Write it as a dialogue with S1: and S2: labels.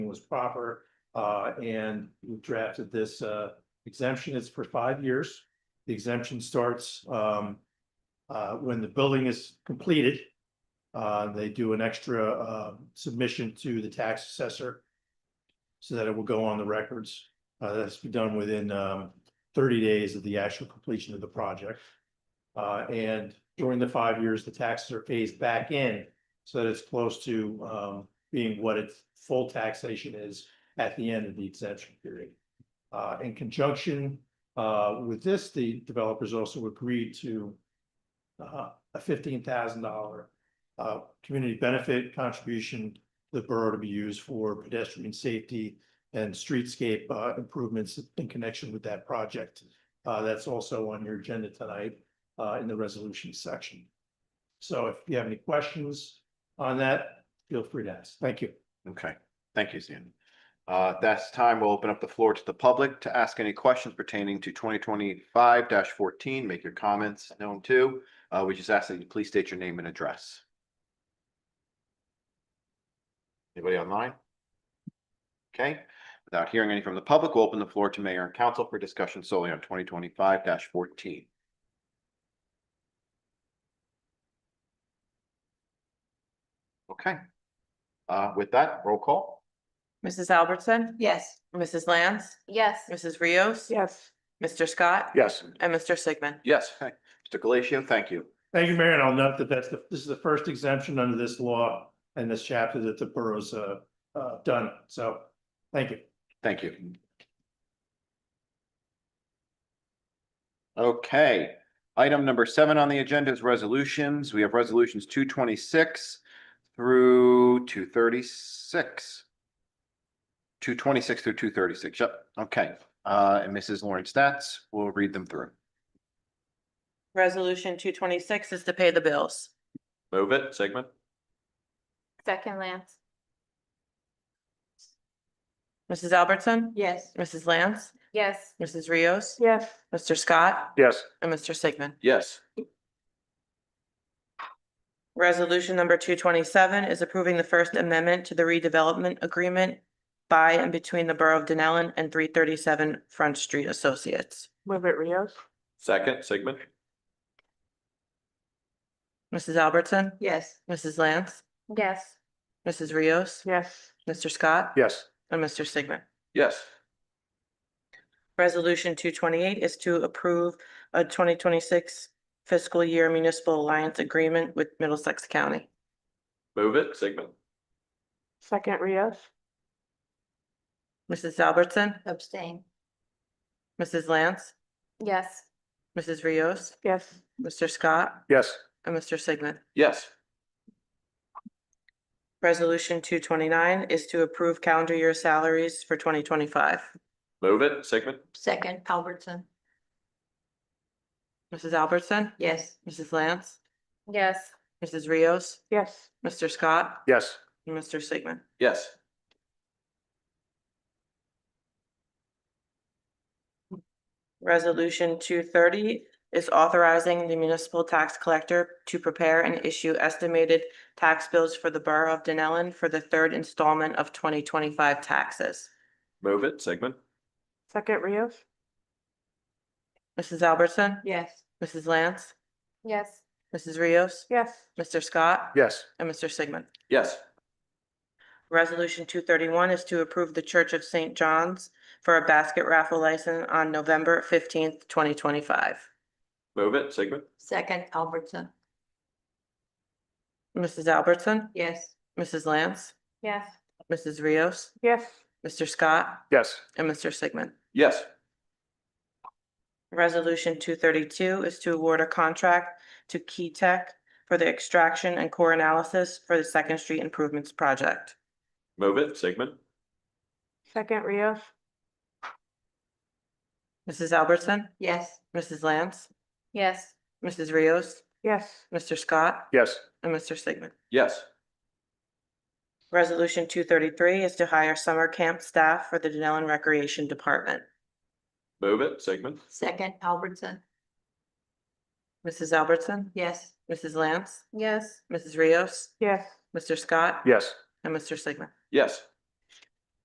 S1: was proper. Uh, and we drafted this, uh, exemption. It's for five years. The exemption starts, um, uh, when the building is completed. Uh, they do an extra, uh, submission to the tax assessor. So that it will go on the records. Uh, that's done within, um, thirty days of the actual completion of the project. Uh, and during the five years, the taxes are phased back in so that it's close to, um, being what its full taxation is at the end of the exemption period. Uh, in conjunction, uh, with this, the developers also agreed to uh, a fifteen thousand dollar uh, community benefit contribution to the borough to be used for pedestrian safety and streetscape uh, improvements in connection with that project. Uh, that's also on your agenda tonight uh, in the resolution section. So if you have any questions on that, feel free to ask. Thank you.
S2: Okay, thank you, Stan. Uh, at this time, we'll open up the floor to the public to ask any questions pertaining to twenty twenty-five fourteen. Make your comments known too. Uh, we just ask that you please state your name and address. Anybody online? Okay, without hearing any from the public, we'll open the floor to mayor and council for discussion solely on twenty twenty-five fourteen. Okay. Uh, with that, roll call.
S3: Mrs. Albertson?
S4: Yes.
S3: Mrs. Lance?
S4: Yes.
S3: Mrs. Rios?
S4: Yes.
S3: Mr. Scott?
S2: Yes.
S3: And Mr. Sigmund?
S2: Yes. Okay. Mr. Galatio, thank you.
S1: Thank you, Mayor, and I'll note that that's the, this is the first exemption under this law and this chapter that the borough's uh, uh, done. So, thank you.
S2: Thank you. Okay, item number seven on the agenda is resolutions. We have resolutions two twenty-six through two thirty-six. Two twenty-six through two thirty-six, yep, okay. Uh, and Mrs. Lauren Stats will read them through.
S3: Resolution two twenty-six is to pay the bills.
S2: Move it, Sigmund.
S4: Second Lance.
S3: Mrs. Albertson?
S4: Yes.
S3: Mrs. Lance?
S4: Yes.
S3: Mrs. Rios?
S4: Yes.
S3: Mr. Scott?
S2: Yes.
S3: And Mr. Sigmund?
S2: Yes.
S3: Resolution number two twenty-seven is approving the First Amendment to the redevelopment agreement by and between the Borough of Denellen and three thirty-seven Front Street Associates.
S4: Move it Rios.
S2: Second, Sigmund.
S3: Mrs. Albertson?
S4: Yes.
S3: Mrs. Lance?
S4: Yes.
S3: Mrs. Rios?
S4: Yes.
S3: Mr. Scott?
S2: Yes.
S3: And Mr. Sigmund?
S2: Yes.
S3: Resolution two twenty-eight is to approve a twenty twenty-six fiscal year municipal alliance agreement with Middlesex County.
S2: Move it, Sigmund.
S4: Second Rios.
S3: Mrs. Albertson,
S4: Abstain.
S3: Mrs. Lance,
S4: Yes.
S3: Mrs. Rios,
S4: Yes.
S3: Mr. Scott,
S2: Yes.
S3: and Mr. Sigmund.
S2: Yes.
S3: Resolution two twenty-nine is to approve calendar year salaries for twenty twenty-five.
S2: Move it, Sigmund.
S4: Second Albertson.
S3: Mrs. Albertson,
S4: Yes.
S3: Mrs. Lance,
S4: Yes.
S3: Mrs. Rios,
S4: Yes.
S3: Mr. Scott,
S2: Yes.
S3: and Mr. Sigmund.
S2: Yes.
S3: Resolution two thirty is authorizing the municipal tax collector to prepare and issue estimated tax bills for the Borough of Denellen for the third installment of twenty twenty-five taxes.
S2: Move it, Sigmund.
S4: Second Rios.
S3: Mrs. Albertson?
S4: Yes.
S3: Mrs. Lance?
S4: Yes.
S3: Mrs. Rios?
S4: Yes.
S3: Mr. Scott?
S2: Yes.
S3: And Mr. Sigmund.
S2: Yes.
S3: Resolution two thirty-one is to approve the Church of Saint John's for a basket raffle license on November fifteenth, twenty twenty-five.
S2: Move it, Sigmund.
S4: Second Albertson.
S3: Mrs. Albertson?
S4: Yes.
S3: Mrs. Lance?
S4: Yes.
S3: Mrs. Rios?
S4: Yes.
S3: Mr. Scott?
S2: Yes.
S3: And Mr. Sigmund.
S2: Yes.
S3: Resolution two thirty-two is to award a contract to Key Tech for the extraction and core analysis for the Second Street Improvements Project.
S2: Move it, Sigmund.
S4: Second Rios.
S3: Mrs. Albertson,
S4: Yes.
S3: Mrs. Lance,
S4: Yes.
S3: Mrs. Rios,
S4: Yes.
S3: Mr. Scott,
S2: Yes.
S3: and Mr. Sigmund.
S2: Yes.
S3: Resolution two thirty-three is to hire summer camp staff for the Denellen Recreation Department.
S2: Move it, Sigmund.
S4: Second Albertson.
S3: Mrs. Albertson,
S4: Yes.
S3: Mrs. Lance,
S4: Yes.
S3: Mrs. Rios,
S4: Yes.
S3: Mr. Scott,
S2: Yes.
S3: and Mr. Sigmund.
S2: Yes.